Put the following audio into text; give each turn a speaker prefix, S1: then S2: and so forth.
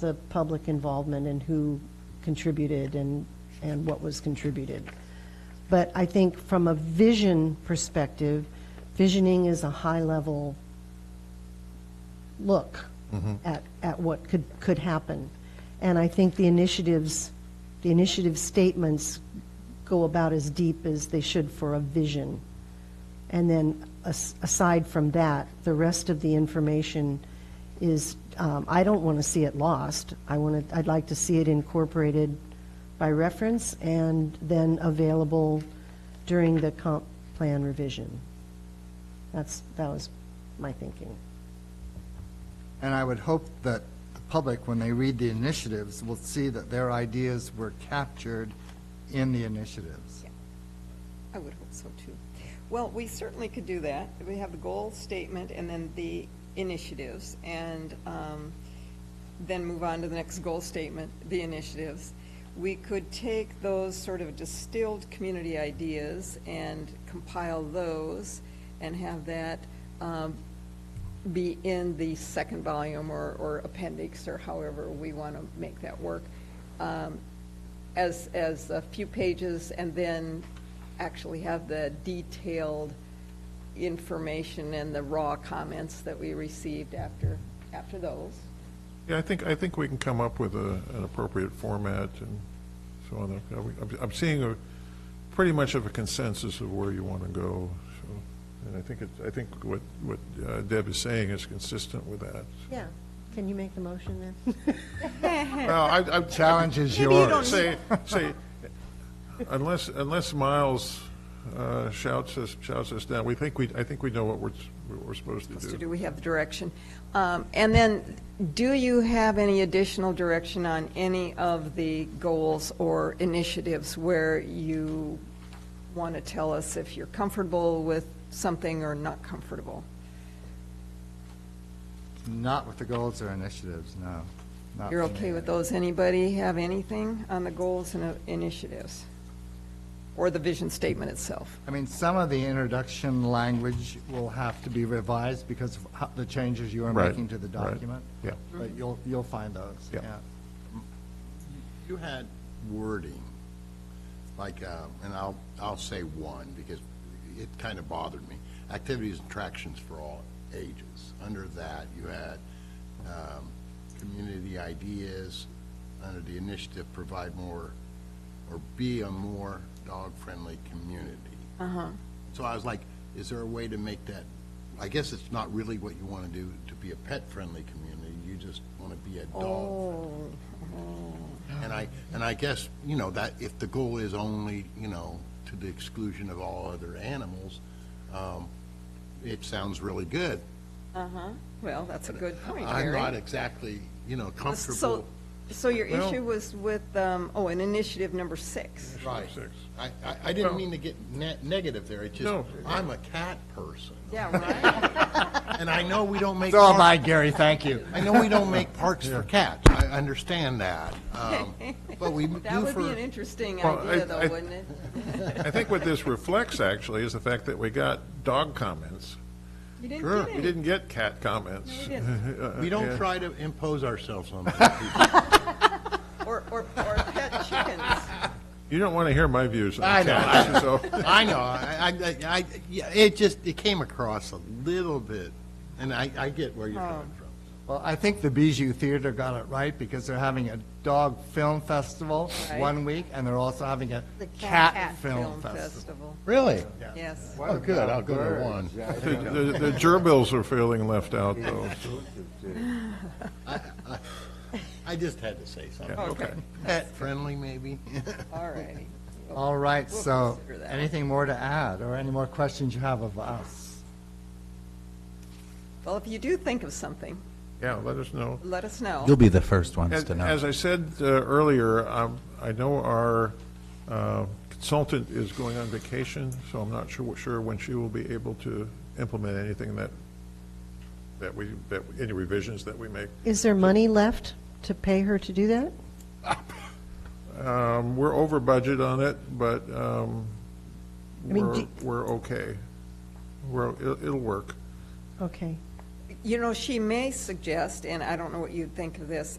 S1: the public involvement and who contributed and, and what was contributed. But I think from a vision perspective, visioning is a high-level look at, at what could, could happen. And I think the initiatives, the initiative statements go about as deep as they should for a vision. And then as- aside from that, the rest of the information is, um, I don't want to see it lost. I want to, I'd like to see it incorporated by reference and then available during the comp plan revision. That's, that was my thinking.
S2: And I would hope that the public, when they read the initiatives, will see that their ideas were captured in the initiatives.
S3: I would hope so, too. Well, we certainly could do that. We have the goal statement and then the initiatives, and um, then move on to the next goal statement, the initiatives. We could take those sort of distilled community ideas and compile those and have that um, be in the second volume or, or appendix, or however we want to make that work. Um, as, as a few pages and then actually have the detailed information and the raw comments that we received after, after those.
S4: Yeah, I think, I think we can come up with a, an appropriate format and so on. I'm- I'm seeing a, pretty much of a consensus of where you want to go, so, and I think it, I think what, what uh, Deb is saying is consistent with that.
S1: Yeah. Can you make the motion then?
S4: Well, I, I.
S2: Challenge is Maybe you yours. don't
S4: Say, say, unless, unless Miles uh, shouts us, shouts us down, we think we, I think we know what we're, what we're supposed to
S3: So
S4: do.
S3: do we have the direction? Um, And then, do you have any additional direction on any of the goals or initiatives where you want to tell us if you're comfortable with something or not comfortable?
S2: Not with the goals or initiatives, no. Not
S3: You're
S2: for me.
S3: okay with those? Anybody have anything on the goals and uh, initiatives? Or the vision statement itself?
S2: I mean, some of the introduction language will have to be revised because of how- the changes you are
S4: Right,
S2: making to the
S4: right,
S2: document.
S4: yeah.
S2: But you'll, you'll find those,
S4: Yeah.
S2: yeah.
S5: You had wording, like, uh, and I'll, I'll say one, because it kind of bothered me. Activities and attractions for all ages. Under that, you had um, community ideas, under the initiative, provide more, or be a more dog-friendly community. Uh-huh. So I was like, is there a way to make that, I guess it's not really what you want to do, to be a pet-friendly community. You just want to be a dog-friendly.
S3: Oh,
S5: And I, and I guess, you know, that if the goal is only, you know, to the exclusion of all other animals, um, it sounds really good.
S3: uh-huh. Well, that's a good point,
S5: I'm
S3: Gary.
S5: not exactly, you know,
S3: So,
S5: comfortable.
S3: so your
S4: Well-
S3: issue was with, um, oh, an initiative number six.
S5: Right.
S4: Six.
S5: I, I, I didn't
S4: Well-
S5: mean to get ne- negative there. It's just,
S4: No.
S5: I'm a cat person.
S3: Yeah, right?
S5: And I know we don't make.
S2: So am
S5: parks-
S2: I, Gary, thank you.
S5: I know we don't make parks for cats. I understand that. Um, but we do for.
S3: That would be an interesting
S4: Well, I-
S3: idea,
S4: I-
S3: though, wouldn't it?
S4: I think what this reflects actually is the fact that we got dog comments.
S3: You didn't
S5: Sure.
S3: get
S4: We
S3: any.
S4: didn't get cat comments.
S3: No, we didn't.
S5: We don't
S4: Uh, Yeah.
S5: try to impose ourselves on people.
S3: Or, or, or pet chickens.
S4: You don't want to hear my views
S5: I
S4: on
S5: know,
S4: cats, so.
S5: I know. I, I- I, I, yeah, it just, it came across a little bit, and I, I get where you're coming from.
S2: Well, I think the Bijou Theater got it right because they're having a dog film festival
S3: Right.
S2: one week, and they're also having a
S1: The
S2: cat film festival.
S5: Really?
S3: Yes.
S5: Oh, good, I'll go to one.
S4: The the- the gerbils are feeling left out, though. so-
S5: I just had to say
S4: yeah,
S5: something.
S4: Okay.
S5: Pet-friendly, maybe?
S3: All righty.
S2: All right,
S3: We'll
S2: so,
S3: consider that.
S2: anything more to add, or any more questions you have of us?
S3: Well, if you do think of something,
S4: Yeah, let us know.
S3: let us know.
S6: You'll be the first ones
S4: As
S6: to know.
S4: as I said uh, earlier, um, I know our uh, consultant is going on vacation, so I'm not sure, sure when she will be able to implement anything that, that we, that, any revisions that we make.
S1: Is there money left to pay her to do that?
S4: Um, We're over budget on it, but um,
S1: I mean,
S4: we're,
S1: do-
S4: we're okay. We're, it'll it'll work.
S1: Okay.
S3: You know, she may suggest, and I don't know what you'd think of this,